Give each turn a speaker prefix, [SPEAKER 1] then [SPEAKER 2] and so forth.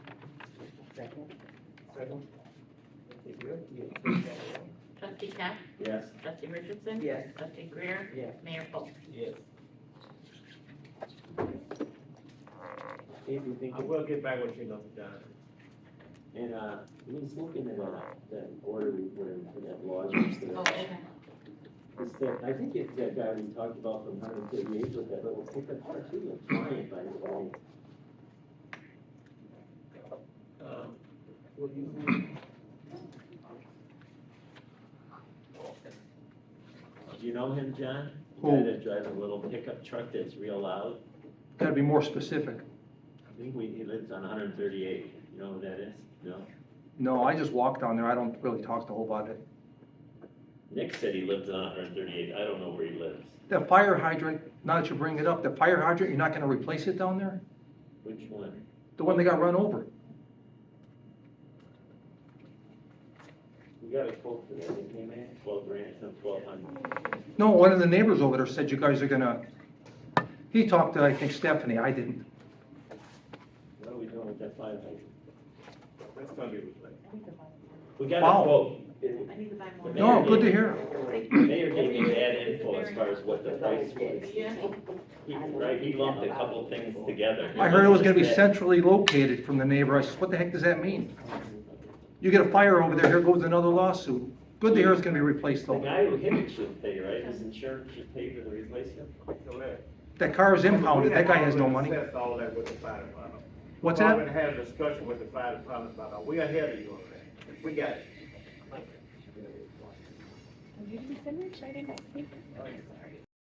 [SPEAKER 1] Second?
[SPEAKER 2] Second. Okay, good, yes.
[SPEAKER 3] Trustee Cap?
[SPEAKER 2] Yes.
[SPEAKER 3] Trustee Richardson?
[SPEAKER 1] Yes.
[SPEAKER 3] Trustee Greer?
[SPEAKER 1] Yes.
[SPEAKER 3] Mayor Cole?
[SPEAKER 2] Yes.
[SPEAKER 4] If you think,
[SPEAKER 2] I will get back with you, Dr. Johnson.
[SPEAKER 4] and, uh, he's looking at, uh, that order we put in for that lodging.
[SPEAKER 3] Oh,
[SPEAKER 4] stuff.
[SPEAKER 3] okay.
[SPEAKER 4] It's that, I think it's that guy we talked about from hundred thirty-eight with that little pickup truck, he looks fine, by the way.
[SPEAKER 2] Um, What do you think?
[SPEAKER 4] Do you know him, John? The
[SPEAKER 5] Who?
[SPEAKER 4] Guy that drives a little pickup truck that's real loud,
[SPEAKER 5] Gotta be more specific.
[SPEAKER 4] I think we, he lives on hundred thirty-eight, you know who that is? No?
[SPEAKER 5] No, I just walk down there, I don't really talk to a whole lot.
[SPEAKER 4] Nick said he lives on hundred thirty-eight, I don't know where he lives.
[SPEAKER 5] The fire hydrant, now that you bring it up, the fire hydrant, you're not gonna replace it down there?
[SPEAKER 4] Which one?
[SPEAKER 5] The one that got run over?
[SPEAKER 4] We got a quote for that, didn't we, man? Twelve grand, some twelve hundred.
[SPEAKER 5] No, one of the neighbors over there said you guys are gonna, he talked to, I think Stephanie, I didn't.
[SPEAKER 4] What are we doing with that fire hydrant?
[SPEAKER 2] That's gonna be replaced.
[SPEAKER 4] We got
[SPEAKER 5] Wow.
[SPEAKER 4] a quote.
[SPEAKER 6] I need to buy more.
[SPEAKER 5] No, good to hear.
[SPEAKER 4] The Mayor gave me bad info as far as what the price was.
[SPEAKER 3] Yeah.
[SPEAKER 4] He- Right, he lumped a couple things together.
[SPEAKER 5] I heard it was gonna be centrally located from the neighbor, I said, what the heck does that mean? You get a fire over there, here goes another lawsuit. Good to hear it's gonna be replaced
[SPEAKER 4] The
[SPEAKER 5] though.
[SPEAKER 4] guy who hit it should pay, right? His insurance should pay for the replacement.
[SPEAKER 2] Correct.
[SPEAKER 5] That car is impounded, that guy has no money.
[SPEAKER 2] We have already discussed all that with the fire department.
[SPEAKER 5] What's
[SPEAKER 2] We
[SPEAKER 5] that?
[SPEAKER 2] Already had a discussion with the fire department about that, we are ahead of you on that, we got it.
[SPEAKER 6] Did you send me a check? I didn't see.